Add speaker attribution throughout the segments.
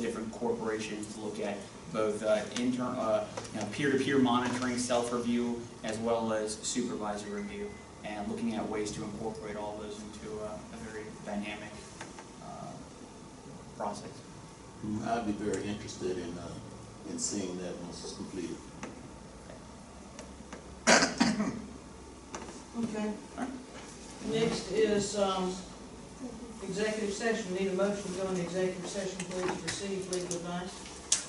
Speaker 1: different corporations look at both uh, intern, uh, you know, peer-to-peer monitoring, self-review, as well as supervisor review, and looking at ways to incorporate all those into uh, a very dynamic uh, process.
Speaker 2: I'd be very interested in, uh, in seeing that once it's completed.
Speaker 3: Okay.
Speaker 1: Alright.
Speaker 3: Next is, um, executive session, need a motion to go into executive session, please, to receive legal advice.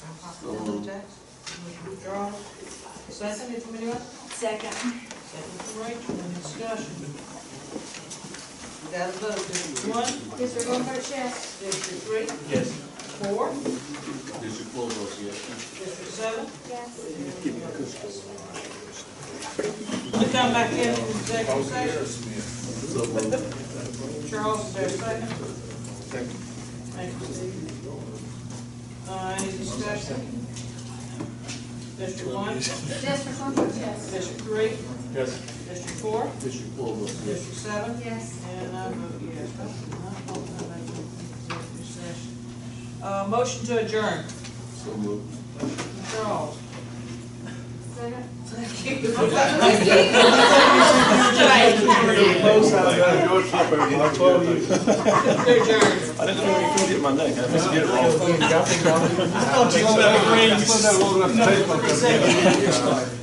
Speaker 3: on confidential tax. Commissioner Charles, second, if anybody else?
Speaker 4: Second.
Speaker 3: Second from Rachel, any discussion? We got a vote, District one,
Speaker 4: Mr. Booker, yes.
Speaker 3: District three,
Speaker 1: Yes.
Speaker 3: four,
Speaker 2: District four votes yes.
Speaker 3: District seven.
Speaker 4: Yes.
Speaker 3: We come back in executive session,
Speaker 2: So moved.
Speaker 3: Charles, is there a second? Second. Thank you, Steve. Uh, any discussion? District one,
Speaker 4: Mr. Booker, yes.
Speaker 3: District three,
Speaker 5: Yes.
Speaker 3: District four,
Speaker 2: District four votes yes.
Speaker 3: District seven,
Speaker 4: Yes.
Speaker 3: And I vote yes. I vote no, I vote executive session. Uh, motion to adjourn.
Speaker 2: So moved.
Speaker 3: Charles.
Speaker 4: Second.
Speaker 3: Adjourn.
Speaker 5: I didn't know you could get my neck, I just get it wrong.
Speaker 6: I thought you were gonna bring, you said that we were gonna have to take my.